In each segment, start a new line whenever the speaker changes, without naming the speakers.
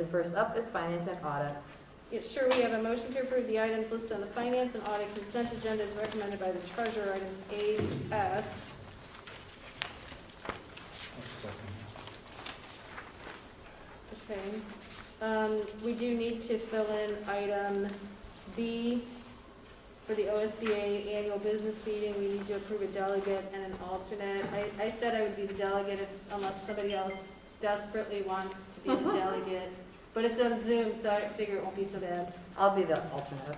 and first up is finance and audit.
Yeah, Sure, we have a motion to approve the items listed on the finance and audit consent agenda as recommended by the treasurer, items A, S. Okay. Um, we do need to fill in item B for the OSBA annual business meeting. We need to approve a delegate and an alternate. I, I said I would be the delegate if- unless somebody else desperately wants to be the delegate. But it's on Zoom, so I figure it won't be so bad.
I'll be the alternate.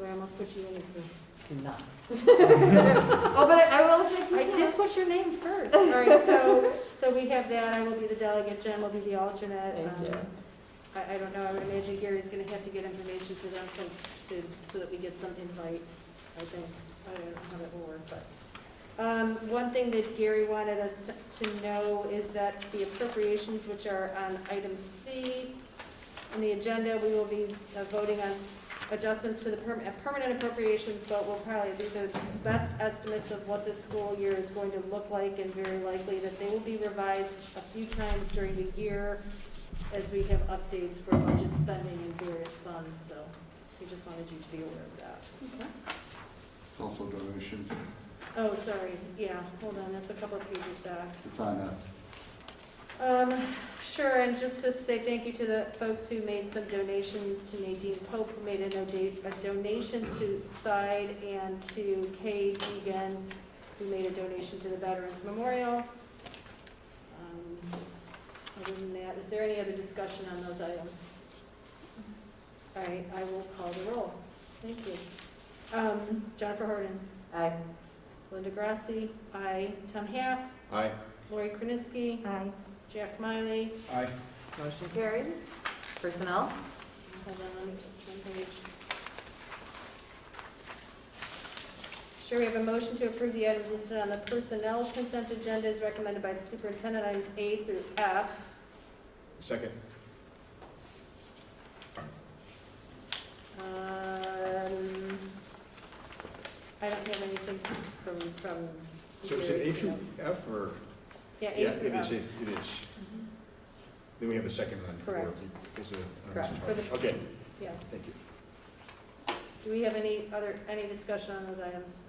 We almost put you in as the
Do not. Oh, but I I will if
I
I can.
did put your name first. All right, so, so we have that, I will be the delegate, Jen will be the alternate.
Thank
Um,
you.
I, I don't know, I would imagine Gary's gonna have to get information to them so, to, so that we get some invite, I think. I don't know how that will work, but. Um, one thing that Gary wanted us to, to know is that the appropriations, which are on item C on the agenda, we will be uh, voting on adjustments to the perm- uh, permanent appropriations, but we'll probably, these are best estimates of what the school year is going to look like, and very likely that they will be revised a few times during the year as we have updates for budget spending and various funds, so we just wanted you to be aware of that.
Um,
It's also donations.
Oh, sorry, yeah, hold on, that's a couple of pages back.
It's on us.
Um, sure, and just to say thank you to the folks who made some donations to Nadine Pope, who made a donate, a donation to Side and to Kay Egan, who made a donation to the Veterans Memorial. Um, Other than that, is there any other discussion on those items? All right, I will call the roll. Thank you. Um, Jennifer Harden,
Aye.
Linda Grassi, aye. Tom Hack,
Aye.
Lori Krenisky,
Aye.
Jack Miley,
Aye.
Motion carried. Personnel?
Hold on, let me turn page. Sure, we have a motion to approve the items listed on the personnel consent agenda as recommended by the superintendent, items A through F.
Second.
Um, I don't have anything from, from.
So is it
Gary,
A through F or?
Yeah,
Yeah,
A
it
through
is,
F. Mm-hmm.
it it is. Then we have a second one.
Correct.
Is it- uh,
Correct.
Mrs. Harden.
For the-
Okay,
Yes.
thank you.
Do we have any other, any discussion on those items?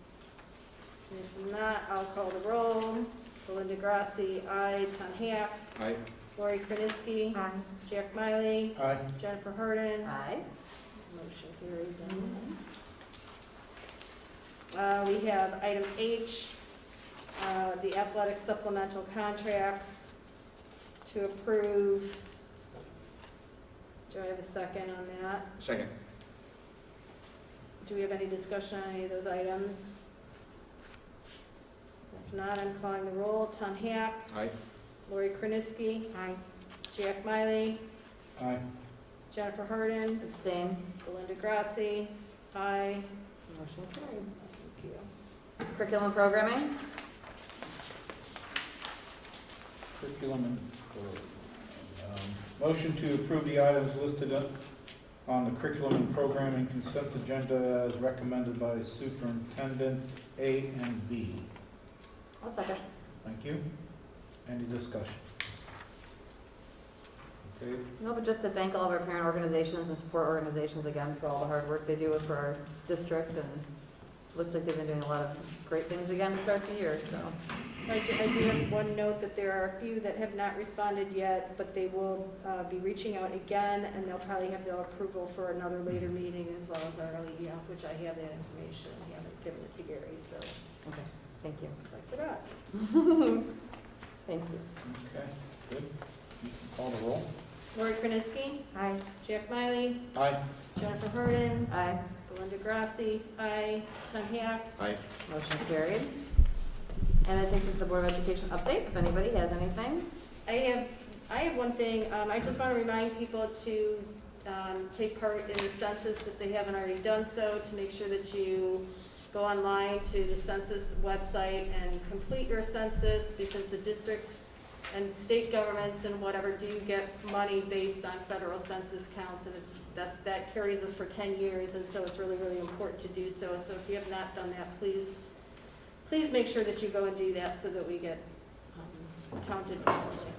If not, I'll call the roll. Belinda Grassi, aye. Tom Hack,
Aye.
Lori Krenisky.
Aye.
Jack Miley,
Aye.
Jennifer Harden,
Aye.
motion carried then. Uh, we have item H, uh, the athletic supplemental contracts to approve. Do I have a second on that?
Second.
Do we have any discussion on any of those items? If not, I'm calling the roll. Tom Hack,
Aye.
Lori Krenisky,
Aye.
Jack Miley,
Aye.
Jennifer Harden,
Abstain.
Belinda Grassi, aye.
Motion carried.
Thank you.
Curriculum programming?
Curriculum and um, Motion to approve the items listed up on the curriculum and programming consent agenda as recommended by Superintendent A and B.
I'll second.
Thank you. Any discussion? Okay,
No, but just to thank all of our parent organizations and support organizations again for all the hard work they do for our district and looks like they've been doing a lot of great things again to start the year, so.
I do, I do have one note that there are a few that have not responded yet, but they will uh, be reaching out again, and they'll probably have their approval for another later meeting as well as our LEDF, which I have that information, I haven't given it to Gary, so
Okay, thank you.
that's it up.
Thank you.
okay, good. You can Call the roll.
Lori Krenisky,
Aye.
Jack Miley,
Aye.
Jennifer Harden,
Aye.
Belinda Grassi, I, Tom Hack,
Aye.
Motion carried. And that takes us to the Board of Education update, if anybody has anything.
I have, I have one thing, um, I just want to remind people to, um, take part in the census if they haven't already done so, to make sure that you go online to the census website and complete your census, because the district and state governments and whatever do get money based on federal census counts, and it's, that, that carries us for ten years, and so it's really, really important to do so, so if you have not done that, please, please make sure that you go and do that so that we get, um, counted properly.